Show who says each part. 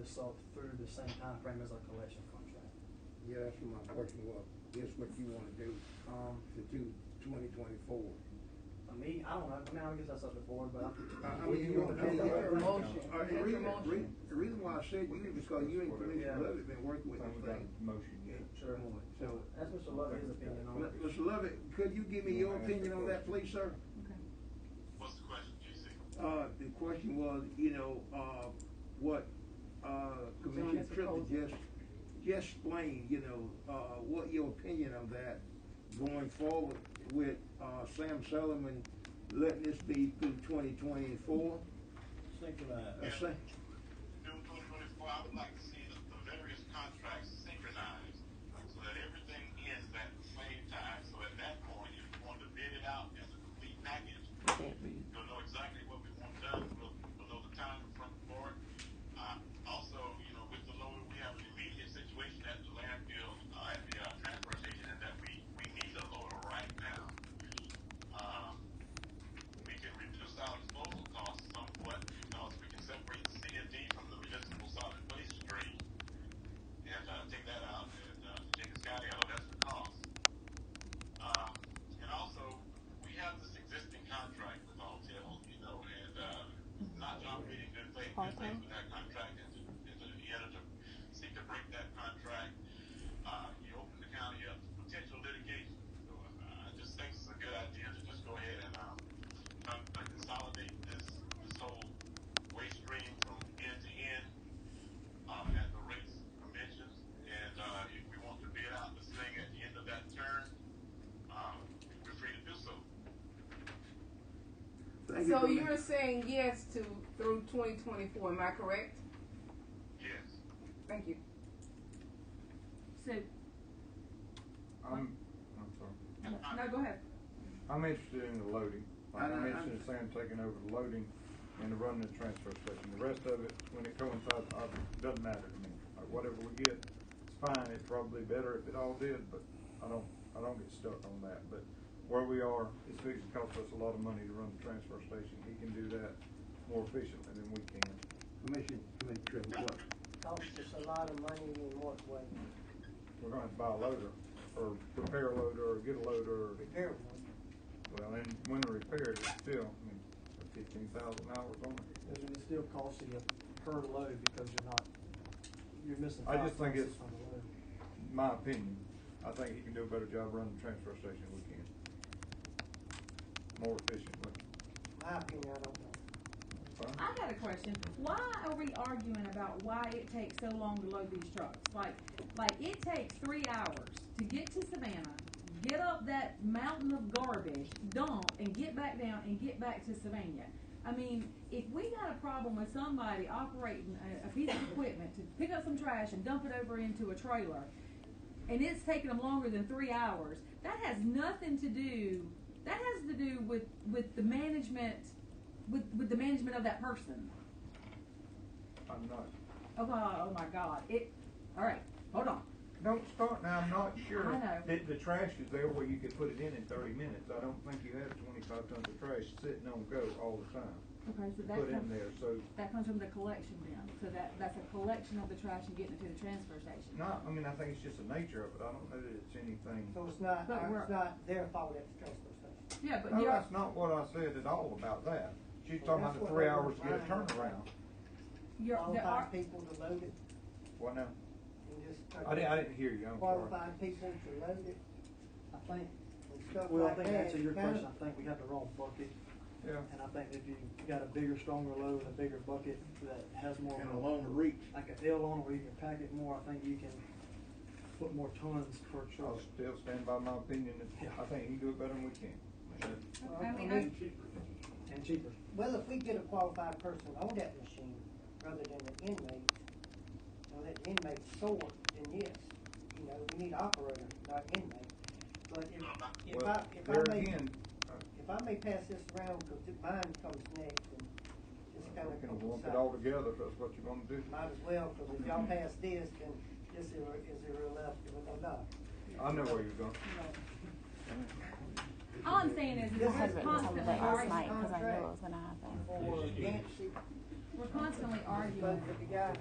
Speaker 1: this up through the same time frame as our collection contract.
Speaker 2: Yeah, that's what my question was, guess what you wanna do
Speaker 1: Um,
Speaker 2: to do twenty twenty-four?
Speaker 1: I mean, I don't know, I mean, I guess that's up to the board, but I
Speaker 2: I
Speaker 1: We do
Speaker 2: mean,
Speaker 1: a
Speaker 2: you wanna do
Speaker 1: motion.
Speaker 2: that.
Speaker 3: Motion.
Speaker 2: Uh, The reason,
Speaker 3: Motion.
Speaker 2: re- the reason why I said you, is because you and
Speaker 1: Yeah.
Speaker 2: Commissioner Lovett been working with
Speaker 4: So
Speaker 2: this
Speaker 4: we got
Speaker 2: thing.
Speaker 4: a motion, yeah.
Speaker 1: Sure.
Speaker 2: So,
Speaker 1: That's Mr. Lovett's opinion on it.
Speaker 2: Mr. Lovett, could you give me your opinion on that, please, sir?
Speaker 3: Okay.
Speaker 5: What's the question, GC?
Speaker 2: Uh, the question was, you know, uh, what, uh, Commissioner
Speaker 3: that's a
Speaker 2: Triplett
Speaker 3: proposal.
Speaker 2: just, just explained, you know, uh, what your opinion of that going forward with, uh, Sam Solomon letting this be through twenty twenty-four?
Speaker 5: Yeah.
Speaker 1: Synchronize.
Speaker 5: June twenty twenty-four, I would like to see the, the various contracts synchronized, so that everything ends at the same time, so at that point, if you want to bid it out as a complete package, you'll know exactly what we want done, we'll, we'll know the time in front for it. Uh, also, you know, with the loader, we have an immediate situation at the landfill, uh, at the, uh, transfer station, and that we, we need a loader right now. Um, we can reduce our disposal costs somewhat because we can separate the C and D from the municipal solid waste stream and uh, take that out and uh, take the sky out. That's the cost. Um, and also, we have this existing contract with Alltel, you know, and uh, not John Meeting good faith, good faith with that contract, and, to, and to, he had to seek to break that contract. Uh, he opened the county up to potential litigation. So uh, I just think it's a good idea to just go ahead and um, try to consolidate this this whole waste stream from end to end um, at the rates conventions, and uh, if we want to bid out this thing at the end of that term, um, we're free to do so.
Speaker 2: Thank you,
Speaker 3: So
Speaker 2: Commissioner.
Speaker 3: you're saying yes to through twenty twenty-four, am I correct?
Speaker 5: Yes.
Speaker 3: Thank you.
Speaker 6: So,
Speaker 4: I'm, I'm sorry.
Speaker 6: no, go ahead.
Speaker 4: I'm interested in the loading. Like,
Speaker 2: I-
Speaker 4: I'm
Speaker 2: I-
Speaker 4: interested in Sam taking over the loading and the running the transfer station. The rest of it, when it coincides, I, doesn't matter to me. Like, whatever we get, it's fine. It's probably better if it all did, but I don't, I don't get stuck on that. But where we are, it's fixing to cost us a lot of money to run the transfer station. He can do that more efficiently than we can.
Speaker 2: Commissioner, Commissioner Triplett, what?
Speaker 7: Costs us a lot of money in what way?
Speaker 4: We're gonna have to buy a loader, or repair a loader, or get a loader, or
Speaker 7: Repair one.
Speaker 4: Well, and when they repaired, it's still, I mean, fifteen thousand dollars on it.
Speaker 7: Doesn't it still cost you per load because you're not, you're missing
Speaker 4: I
Speaker 7: five
Speaker 4: just think
Speaker 7: cents
Speaker 4: it's-
Speaker 7: on the load?
Speaker 4: My opinion, I think he can do a better job running the transfer station than we can. More efficiently.
Speaker 7: My opinion, I don't know.
Speaker 4: Fine.
Speaker 6: I got a question. Why are we arguing about why it takes so long to load these trucks? Like, like it takes three hours to get to Savannah, get up that mountain of garbage, dump, and get back down and get back to Savannah. I mean, if we got a problem with somebody operating a, a piece of equipment to pick up some trash and dump it over into a trailer, and it's taking them longer than three hours, that has nothing to do. That has to do with with the management with with the management of that person.
Speaker 4: I'm not,
Speaker 6: Oh, oh, oh my God! It. All right, hold on.
Speaker 4: don't start now, I'm not sure.
Speaker 6: I know.
Speaker 4: That the trash is there where you could put it in in thirty minutes. I don't think you have twenty-five tons of trash sitting on go all the time.
Speaker 6: Okay, so that
Speaker 4: Put in
Speaker 6: comes,
Speaker 4: there, so,
Speaker 6: that comes from the collection bin. So that that's a collection of the trash and getting it to the transfer station.
Speaker 4: not, I mean, I think it's just the nature of it. I don't know that it's anything.
Speaker 7: So it's not,
Speaker 6: But we're-
Speaker 7: it's not Oh, their fault at the transfer station.
Speaker 6: Yeah, but
Speaker 4: No,
Speaker 6: you're,
Speaker 4: that's not what I said at all about that. She's talking about the
Speaker 7: That's what
Speaker 4: three
Speaker 7: they were
Speaker 4: hours to get a
Speaker 7: trying to-
Speaker 4: turnaround.
Speaker 6: you're there are
Speaker 7: Qualified people to load it
Speaker 4: What now?
Speaker 7: and just.
Speaker 4: I didn't, I didn't hear you, I'm sorry.
Speaker 7: Qualified people to load it, I think, and stuff
Speaker 1: Well, I
Speaker 7: like that.
Speaker 1: think to answer your
Speaker 7: It's kind
Speaker 1: question,
Speaker 7: of-
Speaker 1: I think we have the wrong bucket,
Speaker 4: Yeah,
Speaker 1: and I think if you got a bigger, stronger load and a bigger bucket that has more.
Speaker 2: And a longer reach.
Speaker 1: Like a L on it where you can pack it more, I think you can put more tons per
Speaker 4: I'll
Speaker 1: truck.
Speaker 4: still stand by my opinion, that I think he can do it better than we can.
Speaker 7: Well,
Speaker 6: I mean, I-
Speaker 1: And cheaper.
Speaker 7: Well, if we get a qualified person on that machine rather than the inmate, and let the inmate sort, then yes, you know, we need operator, not inmate. But if, if I,
Speaker 4: Well,
Speaker 7: if
Speaker 4: there
Speaker 7: I may,
Speaker 4: again,
Speaker 7: if I may pass this around, cause it- mine comes next and just
Speaker 4: we're
Speaker 7: kinda.
Speaker 4: gonna
Speaker 7: comes
Speaker 4: lump it
Speaker 7: out.
Speaker 4: all together, if that's what you're gonna do.
Speaker 7: Might as well, cause if y'all pass this, then this is, is there left or not.
Speaker 4: I know where you're going.
Speaker 6: all I'm saying is,
Speaker 7: This
Speaker 6: we're
Speaker 7: is-
Speaker 6: constantly
Speaker 7: Last
Speaker 6: arguing.
Speaker 7: night. 'cause I knew it was
Speaker 8: gonna happen.
Speaker 7: For Nancy,
Speaker 6: We're constantly
Speaker 7: but
Speaker 6: arguing.
Speaker 7: if the guy